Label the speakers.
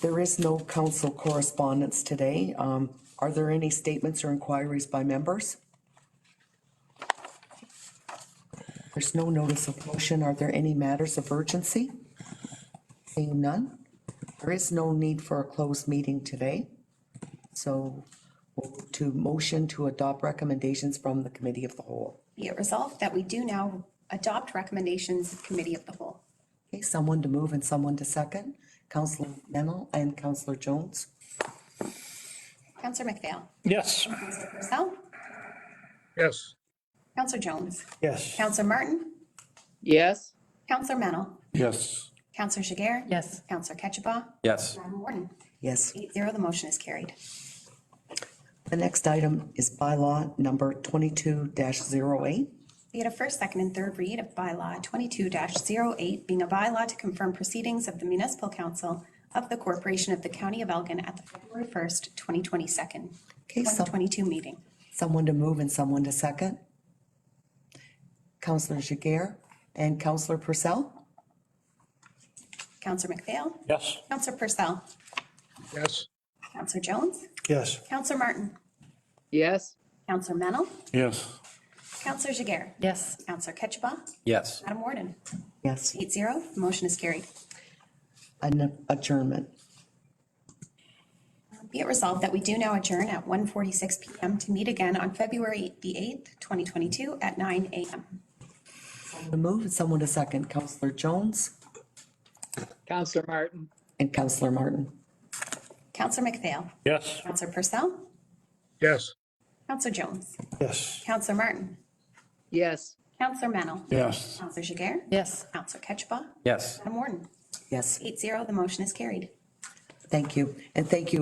Speaker 1: There is no council correspondence today. Um, Are there any statements or inquiries by members? There's no notice of motion. Are there any matters of urgency? Seeing none, there is no need for a closed meeting today. So we'll move to motion to adopt recommendations from the committee of the whole.
Speaker 2: Be it resolved that we do now adopt recommendations of committee of the whole.
Speaker 1: Okay, someone to move and someone to second. Councillor Mennel and Councillor Jones.
Speaker 2: Counselor McPhail.
Speaker 3: Yes.
Speaker 2: Counselor Purcell.
Speaker 4: Yes.
Speaker 2: Counselor Jones.
Speaker 3: Yes.
Speaker 2: Counselor Martin.
Speaker 5: Yes.
Speaker 2: Counselor Mennel.
Speaker 6: Yes.
Speaker 2: Counselor Jiguer.
Speaker 5: Yes.
Speaker 2: Counselor Ketchabah.
Speaker 6: Yes.
Speaker 2: Madam Warden.
Speaker 1: Yes.
Speaker 2: Eight zero, the motion is carried.
Speaker 1: The next item is bylaw number twenty-two 8
Speaker 2: Be it a first, second, and third read of bylaw twenty-two 8 being a bylaw to confirm proceedings of the municipal council of the corporation of the county of Elgin at the February first, twenty twenty-second,
Speaker 1: Okay, so-
Speaker 2: twenty twenty-two meeting.
Speaker 1: Someone to move and someone to second. Counselor Jiguer and Counselor Purcell?
Speaker 2: Counselor McPhail.
Speaker 3: Yes.
Speaker 2: Counselor Purcell.
Speaker 4: Yes.
Speaker 2: Counselor Jones.
Speaker 3: Yes.
Speaker 2: Counselor Martin.
Speaker 5: Yes.
Speaker 2: Counselor Mennel.
Speaker 6: Yes.
Speaker 2: Counselor Jiguer.
Speaker 5: Yes.
Speaker 2: Counselor Ketchabah.
Speaker 6: Yes.
Speaker 2: Madam Warden.
Speaker 1: Yes.
Speaker 2: Eight zero, the motion is carried.
Speaker 1: An adjournment.
Speaker 2: Be it resolved that we do now adjourn at 1:46 PM to meet again on February the 8th, 2022 at 9 AM.
Speaker 1: Someone To move and someone to second. Counselor Jones
Speaker 5: Counselor Martin.
Speaker 1: and Counselor Martin.
Speaker 2: Counselor McPhail.
Speaker 3: Yes.
Speaker 2: Counselor Purcell.
Speaker 4: Yes.
Speaker 2: Counselor Jones.
Speaker 3: Yes.
Speaker 2: Counselor Martin.
Speaker 5: Yes.
Speaker 2: Counselor Mennel.
Speaker 6: Yes.
Speaker 2: Counselor Jiguer.
Speaker 5: Yes.
Speaker 2: Counselor Ketchba.
Speaker 6: Yes.
Speaker 2: Madam Warden.
Speaker 1: Yes,
Speaker 2: Eight zero, the motion is carried.
Speaker 1: thank you. And thank you